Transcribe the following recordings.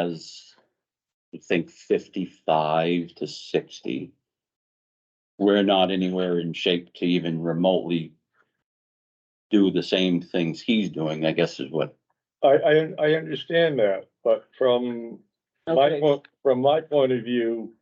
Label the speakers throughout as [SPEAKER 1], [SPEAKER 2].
[SPEAKER 1] has, I think, fifty-five to sixty. We're not anywhere in shape to even remotely do the same things he's doing, I guess is what.
[SPEAKER 2] I, I, I understand that, but from my,
[SPEAKER 3] Okay.
[SPEAKER 2] point- from my point of view,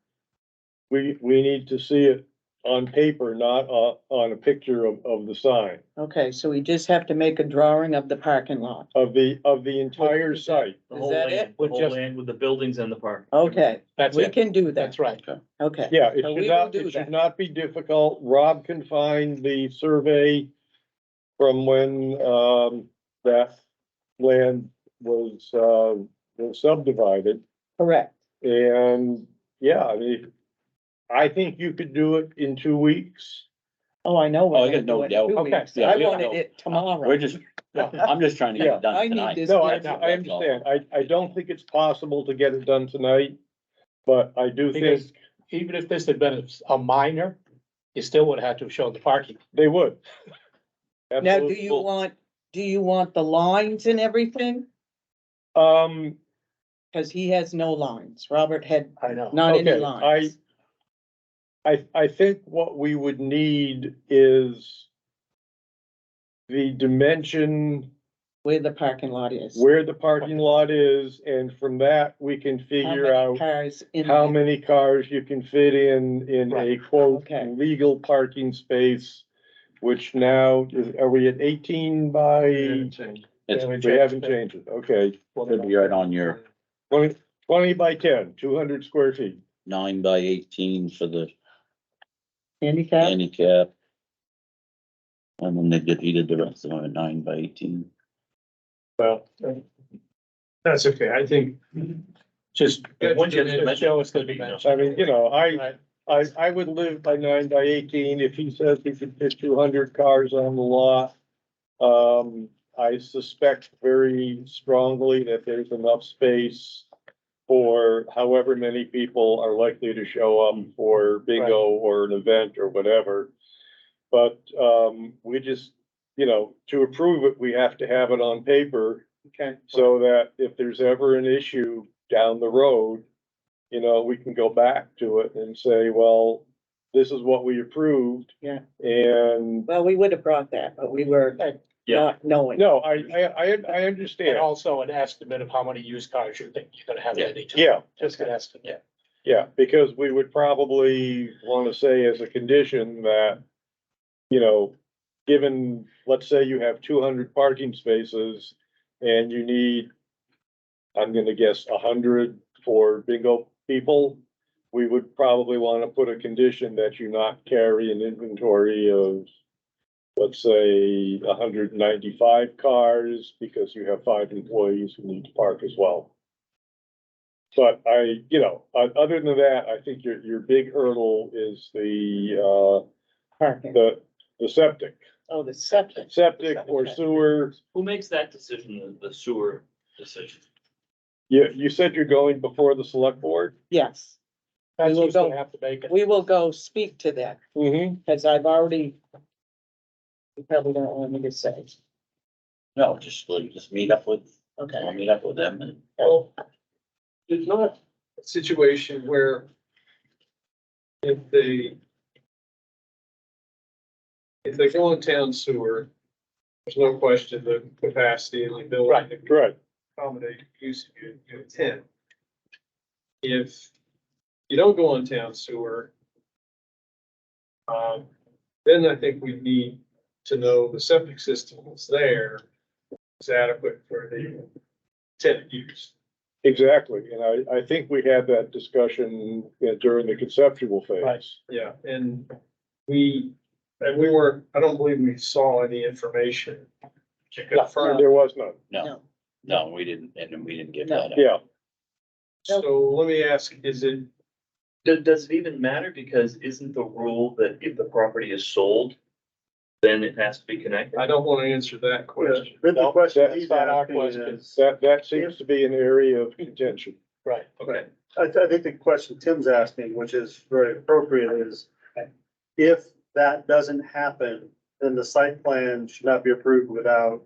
[SPEAKER 2] we, we need to see it on paper, not on, on a picture of, of the sign,
[SPEAKER 3] Okay, so we just have to make a drawing of the parking lot.
[SPEAKER 2] of the, of the entire site.
[SPEAKER 4] The
[SPEAKER 3] Is
[SPEAKER 4] whole
[SPEAKER 3] that
[SPEAKER 4] land-
[SPEAKER 3] it?
[SPEAKER 4] The
[SPEAKER 5] With
[SPEAKER 4] whole
[SPEAKER 5] just-
[SPEAKER 4] land with the buildings and the park.
[SPEAKER 3] Okay,
[SPEAKER 5] That's
[SPEAKER 3] we
[SPEAKER 5] it.
[SPEAKER 3] can do that.
[SPEAKER 5] That's right.
[SPEAKER 3] Okay.
[SPEAKER 2] Yeah, it
[SPEAKER 3] So we
[SPEAKER 2] should
[SPEAKER 3] will
[SPEAKER 2] not,
[SPEAKER 3] do
[SPEAKER 2] it
[SPEAKER 3] that.
[SPEAKER 2] should not be difficult. Rob can find the survey from when, um, that land was, uh, was subdivided.
[SPEAKER 3] Correct.
[SPEAKER 2] And, yeah, I mean, I think you could do it in two weeks.
[SPEAKER 3] Oh, I know. we're
[SPEAKER 1] Oh, I
[SPEAKER 3] gonna
[SPEAKER 1] got no
[SPEAKER 3] do it in
[SPEAKER 1] doubt.
[SPEAKER 3] two
[SPEAKER 5] Okay.
[SPEAKER 3] weeks.
[SPEAKER 1] Yeah,
[SPEAKER 3] I
[SPEAKER 1] we don't
[SPEAKER 3] wanted
[SPEAKER 1] know.
[SPEAKER 3] it tomorrow.
[SPEAKER 1] We're just, I'm just trying to get
[SPEAKER 2] Yeah.
[SPEAKER 1] it done
[SPEAKER 3] I need
[SPEAKER 1] tonight.
[SPEAKER 3] this-
[SPEAKER 2] No, I,
[SPEAKER 3] Yes,
[SPEAKER 2] I understand. I, I don't think it's possible to get it done tonight, but I do think
[SPEAKER 5] Because even if this had been a minor, you still would have had to show the parking.
[SPEAKER 2] they would.
[SPEAKER 3] Now, do
[SPEAKER 2] Absolutely.
[SPEAKER 3] you want, do you want the lines and everything?
[SPEAKER 2] Um,
[SPEAKER 3] Cause he has no lines. Robert had
[SPEAKER 5] I know.
[SPEAKER 3] not any
[SPEAKER 2] Okay,
[SPEAKER 3] lines.
[SPEAKER 2] I, I think what we would need is the dimension
[SPEAKER 3] Where the parking lot is.
[SPEAKER 2] where the parking lot is, and from that, we can
[SPEAKER 3] How
[SPEAKER 2] figure
[SPEAKER 3] many
[SPEAKER 2] out
[SPEAKER 3] Cars in.
[SPEAKER 2] how
[SPEAKER 3] there.
[SPEAKER 2] many cars you can fit in, in a
[SPEAKER 5] Right,
[SPEAKER 2] quote,
[SPEAKER 3] okay.
[SPEAKER 2] legal parking space, which now, is- are we at eighteen by?
[SPEAKER 1] It's-
[SPEAKER 2] We haven't changed it, okay.
[SPEAKER 1] Could be right on your
[SPEAKER 2] Twenty, twenty by 10, 200 square feet.
[SPEAKER 1] nine by eighteen for the
[SPEAKER 3] Handicap?
[SPEAKER 1] handicap. And then they did, he did the rest of them at nine by eighteen.
[SPEAKER 4] Well.
[SPEAKER 5] That's okay, I think. Just.
[SPEAKER 4] Once you mention-
[SPEAKER 5] Show us the dimension.
[SPEAKER 2] I mean, you know, I,
[SPEAKER 5] Right.
[SPEAKER 2] I, I would live by nine by eighteen if he says he could fit two hundred cars on the lot. Um, I suspect very strongly that there's enough space for however many people are likely to show up for bingo or an event or whatever. But, um, we just, you know, to approve it, we have to have it on paper
[SPEAKER 5] Okay.
[SPEAKER 2] so that if there's ever an issue down the road, you know, we can go back to it and say, well, this is what we approved.
[SPEAKER 3] Yeah.
[SPEAKER 2] And,
[SPEAKER 3] Well, we would have brought that, but we were
[SPEAKER 4] Yeah.
[SPEAKER 3] not knowing.
[SPEAKER 2] no, I, I, I, I
[SPEAKER 5] And
[SPEAKER 2] understand,
[SPEAKER 5] also an estimate of how many used cars you think you're gonna have at any time.
[SPEAKER 2] yeah,
[SPEAKER 5] Just an estimate.
[SPEAKER 2] yeah, because we would probably wanna say as a condition that, you know, given, let's say you have two hundred parking spaces and you need, I'm gonna guess hundred for bingo people, we would probably wanna put a condition that you not carry an inventory of, let's say, hundred and ninety-five cars, because you have five employees who need to park as well. But I, you know, o- other than that, I think your, your big hurdle is the, uh,
[SPEAKER 3] Parking.
[SPEAKER 2] the, the septic.
[SPEAKER 3] Oh, the septic.
[SPEAKER 2] Septic or sewer,
[SPEAKER 4] Who makes that decision, the sewer decision?
[SPEAKER 2] you, you said you're going before the select board?
[SPEAKER 3] Yes,
[SPEAKER 5] That's
[SPEAKER 3] will
[SPEAKER 5] who's gonna
[SPEAKER 3] go-
[SPEAKER 5] have to make it.
[SPEAKER 3] we will go speak to that.
[SPEAKER 2] Mm-hmm.
[SPEAKER 3] Cause I've already. You probably don't want me to say,
[SPEAKER 1] No, just like, just meet up with, I'll
[SPEAKER 3] okay,
[SPEAKER 1] meet up with them and.
[SPEAKER 6] Well, it's not a situation where if they if they go on town sewer, there's no question the capacity and the ability to
[SPEAKER 2] Right,
[SPEAKER 6] accommodate use of your- your intent. If you don't go on town sewer, um, then I think we need to know the septic system that's there is adequate for the tenant use.
[SPEAKER 2] exactly. And I, I think we had that discussion uh, during the conceptual
[SPEAKER 5] Right.
[SPEAKER 2] phase.
[SPEAKER 6] Yeah, and we, and we were, I don't believe we saw any information to confirm.
[SPEAKER 2] There was none,
[SPEAKER 1] No,
[SPEAKER 3] no,
[SPEAKER 1] no, we didn't, and then we didn't get
[SPEAKER 3] No.
[SPEAKER 1] that. up.
[SPEAKER 2] yeah.
[SPEAKER 6] So let me ask, is it,
[SPEAKER 4] Does, does it even matter? Because isn't the rule that if the property is sold, then it has to be connected?
[SPEAKER 6] I don't want to answer that question.
[SPEAKER 2] No, that's not our question. That, that seems to be an area of contention.
[SPEAKER 5] Right.
[SPEAKER 6] Okay,
[SPEAKER 7] I, th- I think the question Tim's asking, which is very appropriate, is if that doesn't happen, then the site plan should not be approved without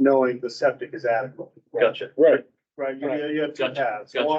[SPEAKER 7] knowing the septic is adequate,
[SPEAKER 4] Gotcha.
[SPEAKER 2] Right.
[SPEAKER 7] right? You, you have two
[SPEAKER 4] Gotcha,
[SPEAKER 7] paths.
[SPEAKER 4] gotcha.
[SPEAKER 7] One,